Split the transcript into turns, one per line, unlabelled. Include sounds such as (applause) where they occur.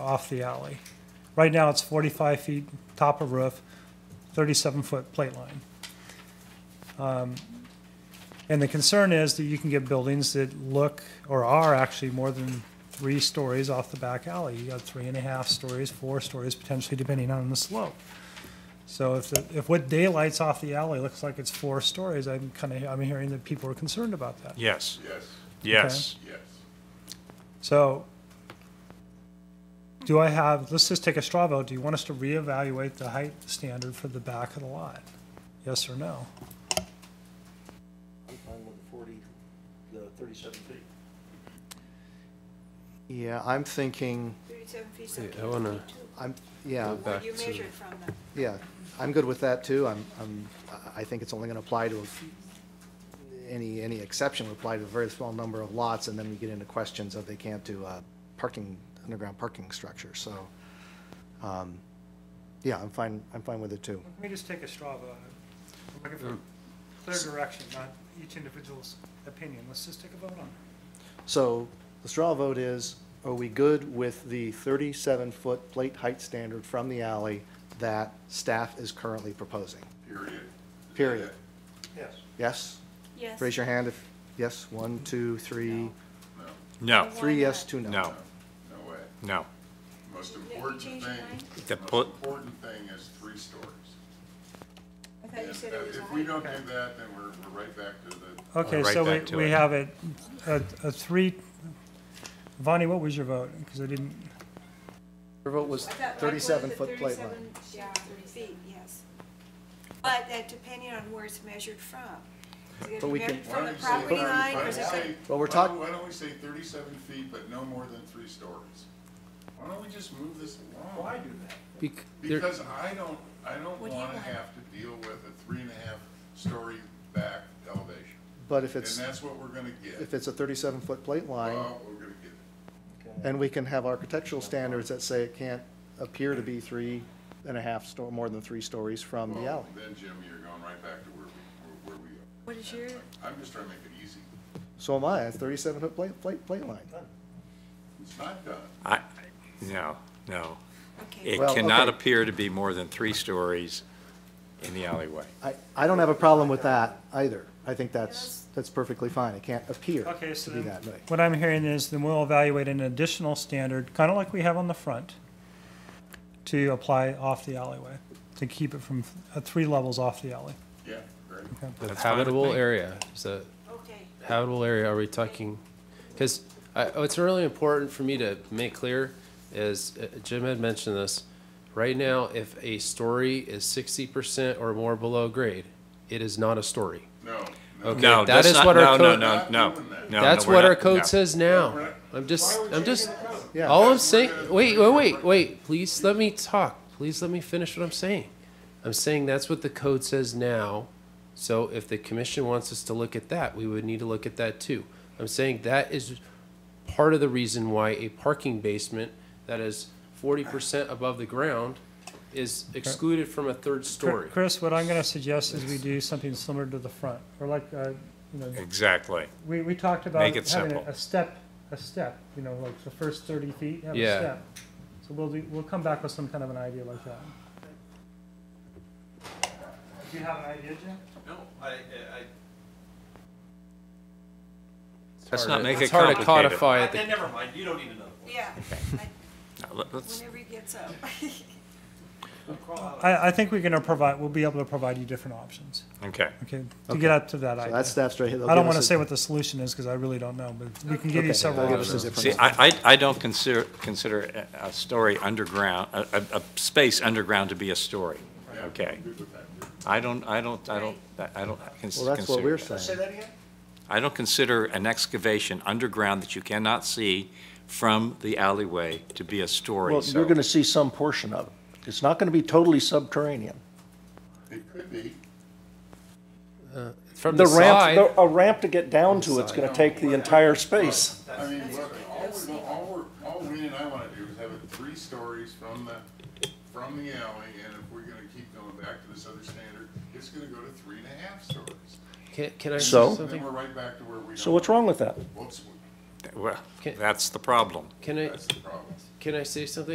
off the alley. Right now, it's 45 feet top of roof, 37-foot plate line. Um, And the concern is that you can get buildings that look, or are actually more than three stories off the back alley. You got three and a half stories, four stories, potentially depending on the slope. So if, the- if what daylights off the alley looks like it's four stories, I'm kind of, I'm hearing that people are concerned about that.
Yes,
Yes,
yes.
yes.
So, do I have, let's just take a straw vote, do you want us to reevaluate the height standard for the back of the lot? Yes or no?
I'm fine with the forty, the thirty-seven feet.
Yeah, I'm thinking,
37 feet's
Yeah,
okay.
I wanna-
I'm, yeah,
Go
What
back
you
to-
measured from them.
yeah, I'm good with that too. I'm, I'm, I think it's only gonna apply to, any, any exception would apply to a very small number of lots, and then we get into questions of they can't do uh parking, underground parking structure, so, um, yeah, I'm fine, I'm fine with it too.
Let me just take a straw vote. I'm looking
Mm.
for clear direction, not each individual's opinion. Let's just take a vote on it.
So the straw vote is, are we good with the 37-foot plate height standard from the alley that staff is currently proposing?
Period.
Period.
Yes.
Yes?
Yes.
Raise your hand if, yes, one, two, three,
No,
No,
three
Why
yes,
not?
two no.
no,
no way.
no.
Most
you
important thing,
change your mind?
The
most
pol-
important thing is three stories.
I thought you
If
said it
that-
was a
If we
height.
don't do that, then we're, we're right back to the,
Oh.
Okay,
Right
so
back
we,
to
we
it.
have it, a, a three, Vonnie, what was your vote? Because I didn't,
Your vote was
I thought Mike wanted
37-foot
the
plate line.
37 yeah, feet, yes. But that depending on where it's measured from. Is it
But we
measured
can-
why
From the
don't you say,
property
why
line
don't
or
we
is it
say,
the-
Well, we're
why
talk-
don't- why don't we say thirty-seven feet, but no more than three stories? Why don't we just move this along? Why do that?
Bec- there-
Because I don't, I don't
What do you
wanna
want?
have to deal with a three and a half story back elevation.
But if
And
it's,
that's what we're gonna get.
if it's a 37-foot plate line,
Well, we're gonna get it.
and we can have architectural standards that say it can't appear to be three and a half, sto- more than three stories from the
Well,
alley.
Then, Jim, you're going right back to where we, where where we are.
What is your,
I'm just trying to make it easy.
So am I, a 37-foot plate, plate, plate line.
It's not done.
I, no, no.
okay,
It
Well,
cannot
okay.
appear to be more than three stories in the alleyway.
I, I don't have a problem with that either. I think that's,
Yes.
that's perfectly fine. It can't appear
Okay, so
to be
then-
that way.
what I'm hearing is then we'll evaluate an additional standard, kind of like we have on the front, to apply off the alleyway, to keep it from, uh, three levels off the alley.
Yeah, great.
the
fine with
habitable
me.
area, is that
okay.
habitable area are we talking? Because what's really important for me to make clear is, uh, Jim had mentioned this, right now, if a story is sixty percent or more below grade, it is not a story.
No, no.
Okay,
No,
that
that's
is
not,
what
no,
our
no,
code-
no, no, no.
That's
no, we're
what
not-
our
no.
code says now.
Right.
I'm just, I'm just,
Yeah.
all I'm
That's
saying,
what it-
wait, wait, wait, wait, please let me talk. Please let me finish what I'm saying. I'm saying that's what the code says now. So if the commission wants us to look at that, we would need to look at that too. I'm saying that is part of the reason why a parking basement that is forty percent above the ground is excluded from a third
Cr-
story.
Chris, what I'm gonna suggest is we do something similar to the front, or like, uh, you know,
Exactly.
we, we talked about
Make it
having a-
simple.
a step, a step, you know, like the first thirty feet, have a
Yeah.
step. So we'll do, we'll come back with some kind of an idea like that. Do you have an idea, Jim?
No, I, I,
Let's
hard
not
to-
make it
It's hard to
complicated.
codify
I,
it.
then never mind, you don't need another one.
(laughs)
Yeah,
No, let- Let's,
whenever he gets up. (laughs)
We'll crawl out.
I, I think we're gonna provide, we'll be able to provide you different options,
okay.
okay, to get up to that
So
idea.
that's staff's right.
I don't wanna say what the solution is, cause I really don't know, but we can give you several
Give us
options.
a different.
See, I, I, I don't consider, consider a, a story underground, a, a, a space underground to be a story, okay? I don't, I don't, I don't, I don't cons- consider.
Well, that's what we're
that.
saying.
that again?
I don't consider an excavation underground that you cannot see from the alleyway to be a story,
Well,
so.
you're gonna see some portion of it. It's not gonna be totally subterranean.
It could be.
From the
The ramp,
side,
the- a ramp to get down to it's gonna take the entire space.
I mean, look, all we, all we're, all we and I wanna do is have it three stories from the, from the alley, and if we're gonna keep going back to this other standard, it's gonna go to three and a half stories.
can, can I say
So?
And then
something?
we're right back to where we.
So what's wrong with that?
What's,
Well,
Can-
that's the problem.
Can I,
that's the problem.
can I say something?